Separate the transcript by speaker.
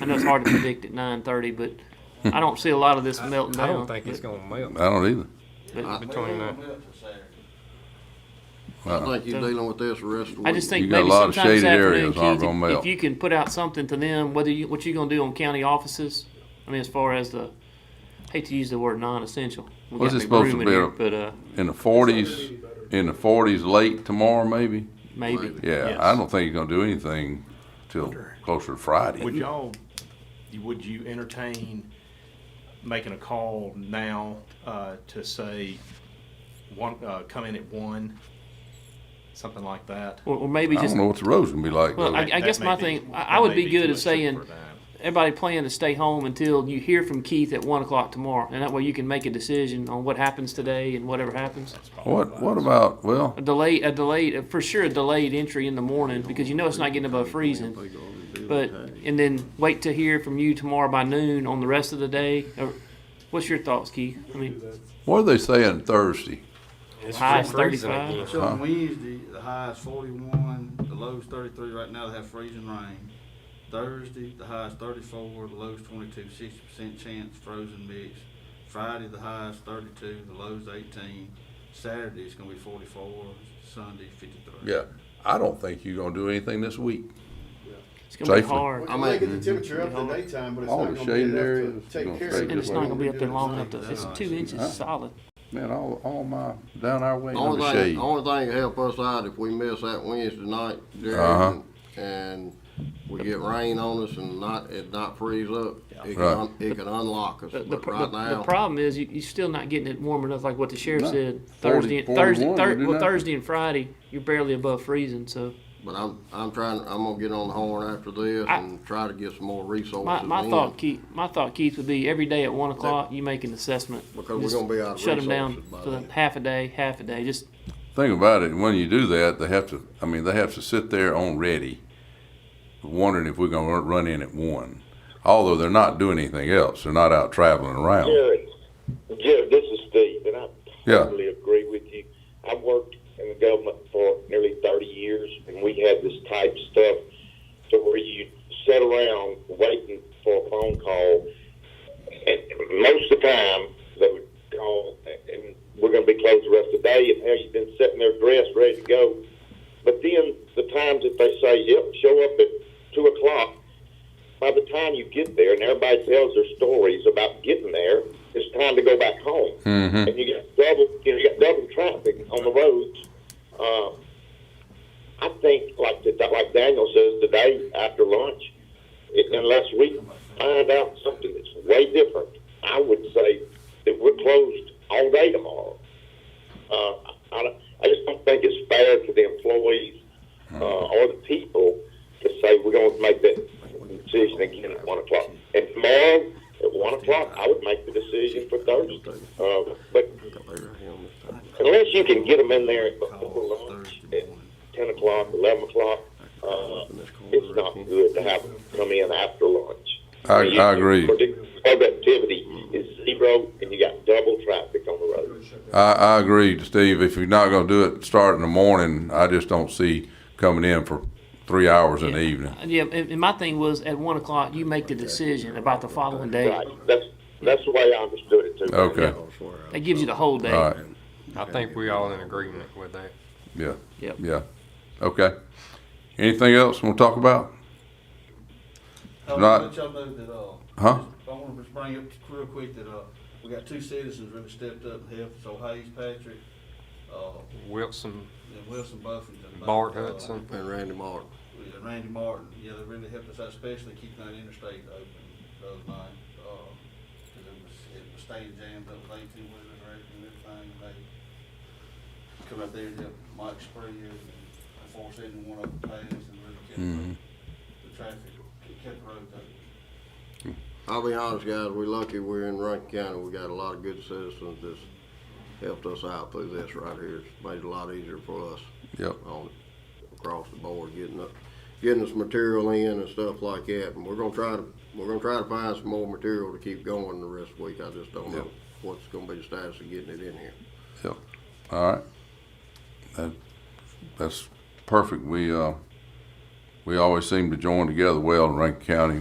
Speaker 1: I know it's hard to predict at nine thirty, but I don't see a lot of this melting
Speaker 2: I
Speaker 1: down.
Speaker 2: don't think it's
Speaker 1: but-
Speaker 2: gonna melt
Speaker 3: I don't either.
Speaker 1: but
Speaker 2: between now.
Speaker 4: I think you're dealing with this the rest of the week.
Speaker 1: Uh-huh. I just think
Speaker 3: You got a
Speaker 1: maybe
Speaker 3: lot of
Speaker 1: sometime this
Speaker 3: shaded
Speaker 1: afternoon,
Speaker 3: areas aren't
Speaker 1: kids,
Speaker 3: gonna
Speaker 1: if- if
Speaker 3: melt.
Speaker 1: you can put out something to them, whether you, what you gonna do on county offices, I mean, as far as the, hate to use the word non-essential. We
Speaker 3: What's
Speaker 1: got
Speaker 3: it
Speaker 1: big
Speaker 3: supposed to
Speaker 1: room in
Speaker 3: be?
Speaker 1: here, But, uh,
Speaker 3: In the forties, in the forties late tomorrow maybe?
Speaker 1: maybe.
Speaker 3: Yeah,
Speaker 1: Yes.
Speaker 3: I don't think he's gonna do anything till closer to Friday.
Speaker 5: Would y'all, would you entertain making a call now uh, to say, one, uh, come in at one, something like that?
Speaker 1: Or, or maybe
Speaker 3: I
Speaker 1: just,
Speaker 3: don't know what the road's gonna be like.
Speaker 1: Well,
Speaker 3: though.
Speaker 1: I- guess
Speaker 5: That
Speaker 1: my
Speaker 5: may
Speaker 1: thing- I- I
Speaker 5: that
Speaker 1: would
Speaker 5: may
Speaker 1: be good
Speaker 5: too
Speaker 1: at
Speaker 5: much
Speaker 1: saying-
Speaker 5: for that.
Speaker 1: everybody plan to stay home until you hear from Keith at one o'clock tomorrow. And that way you can make a decision on what happens today and whatever happens.
Speaker 3: What, what about, well,
Speaker 1: A delay, a delayed, for sure, a delayed entry in the morning because you know it's not getting above freezing. But and then wait to hear from you tomorrow by noon on the rest of the day. Or, what's your thoughts, Keith? I mean,
Speaker 3: what are they saying Thursday?
Speaker 2: It's
Speaker 1: High is
Speaker 2: still freezing
Speaker 1: 35.
Speaker 2: again.
Speaker 6: So on Wednesday, the high is forty-one, the low is thirty-three, right now they have freezing rain. Thursday, the high is thirty-four, the low is 22. 60 percent chance frozen mix. Friday, the high is thirty-two, the low is eighteen. Saturday, it's gonna be forty-four, Sunday, fifty-three.
Speaker 3: Yeah, I don't think you're gonna do anything this week.
Speaker 1: it's gonna be
Speaker 3: Safely.
Speaker 1: hard.
Speaker 4: I
Speaker 7: I'm
Speaker 4: mean-
Speaker 7: making the temperature up in the daytime, but it's
Speaker 3: All
Speaker 7: not
Speaker 3: the
Speaker 7: gonna be
Speaker 3: shaded
Speaker 7: enough
Speaker 3: areas,
Speaker 7: to take
Speaker 3: gonna
Speaker 7: care
Speaker 3: stay
Speaker 7: of it.
Speaker 1: And it's not gonna be up there long enough. To, it's two inches solid.
Speaker 3: Man, all, all my, down our way, under
Speaker 4: Only
Speaker 3: shade.
Speaker 4: thing, only thing to help us out if we miss that Wednesday night,
Speaker 3: Uh-huh.
Speaker 4: Jerry, and we get rain on us and not, it not freeze up, it can,
Speaker 3: Right.
Speaker 4: un- it can unlock us,
Speaker 1: The, the,
Speaker 4: but
Speaker 1: pr- the,
Speaker 4: right
Speaker 1: the
Speaker 4: now.
Speaker 1: problem is you, you're still not getting it warm enough, like what the sheriff
Speaker 3: No.
Speaker 1: said.
Speaker 3: 40,
Speaker 1: Thursday, Thursday,
Speaker 3: 41,
Speaker 1: thir-
Speaker 3: we do
Speaker 1: well,
Speaker 3: nothing.
Speaker 1: Thursday and Friday, you're barely above freezing. So
Speaker 4: But I'm, I'm trying, I'm gonna get on the horn after this
Speaker 1: I-
Speaker 4: and try to get some more resources
Speaker 1: my,
Speaker 4: in.
Speaker 1: my thought, Keith, my thought, Keith, would be every day at one o'clock you make an assessment.
Speaker 4: Because we're
Speaker 1: Just
Speaker 4: gonna be out of
Speaker 1: Shut them down
Speaker 4: resources by
Speaker 1: for
Speaker 4: then.
Speaker 1: half a day, half a day. Just
Speaker 3: Think about it, when you do that, they have to, I mean, they have to sit there on ready, wondering if we're gonna run- run in at one. Although they're not doing anything else, they're not out traveling around.
Speaker 8: Jared, Jared, this is Steve, and I
Speaker 3: Yeah.
Speaker 8: totally agree with you. I worked in the government for nearly 30 years, and we had this type stuff to where you sit around waiting for a phone call, and most of the time they would call, and we're going to be closed the rest of the day, and hell, you've been sitting there dressed, ready to go. But then the times that they say, yep, show up at 2 o'clock, by the time you get there and everybody tells their stories about getting there, it's time to go back home. And you got double, you, know, you got double traffic on the roads. Uh, I think, like the, like Daniel says today after lunch, it, unless we find out something that's way different, I would say that we're closed all day tomorrow. Uh, I, don't- I just don't think it's fair to the employees
Speaker 3: Hmm.
Speaker 8: uh, or the people to say we're going to make that decision again at one o'clock. And tomorrow at one o'clock, I would make the decision for Thursday. Uh, but unless you can get them in there before lunch at ten o'clock, eleven o'clock, uh, it's not good to have them come in after lunch.
Speaker 3: I- I agree.
Speaker 8: Productivity is zero, and you got double traffic on the road.
Speaker 3: I, I agree, Steve. If you're not going to do it start in the morning, I just don't see coming in for three hours in the evening.
Speaker 1: Yeah, and, and my thing was at one o'clock, you make the decision about the following day.
Speaker 8: Right. That's that's the way I understood it too.
Speaker 3: Okay.
Speaker 1: That gives you the whole day.
Speaker 3: All right.
Speaker 2: I think we all in agreement with that.
Speaker 3: Yeah.
Speaker 1: Yep.
Speaker 3: Yeah. Okay. Anything else we'll talk about?
Speaker 6: I wanna
Speaker 3: Not-
Speaker 6: let y'all know that, uh,
Speaker 3: Huh?
Speaker 6: just- I wanna just bring up real quick that, uh, we got two citizens really stepped up and helped, so Hayes Patrick, uh,
Speaker 2: Wilson,
Speaker 6: and Wilson Buffington.
Speaker 2: Bart
Speaker 6: Uh,
Speaker 2: Hudson.
Speaker 4: And Randy Martin.
Speaker 6: Yeah, Randy Martin, yeah, they really helped us out, especially keeping that interstate open the other night, uh, 'cause it was, it was staying jammed up with eighteen wheelers and everything, and they come out there and help Mike Springer and force anyone one up the pass and really kept
Speaker 3: Mhm.
Speaker 6: the traffic, it kept the road open.
Speaker 4: I'll be honest, guys, we're lucky we're in Rankin County. We got a lot of good citizens that's helped us out through this right here. It's made it a lot easier for us
Speaker 3: Yep.
Speaker 4: on, across the board, getting up, getting us material in and stuff like that. And we're gonna try to, we're gonna try to find some more material to keep going the rest of the week. I just don't know
Speaker 3: Yep.
Speaker 4: what's gonna be the status of getting it in here.
Speaker 3: Yep. All right. That, that's perfect. We, uh, we always seem to join together well in Rankin County.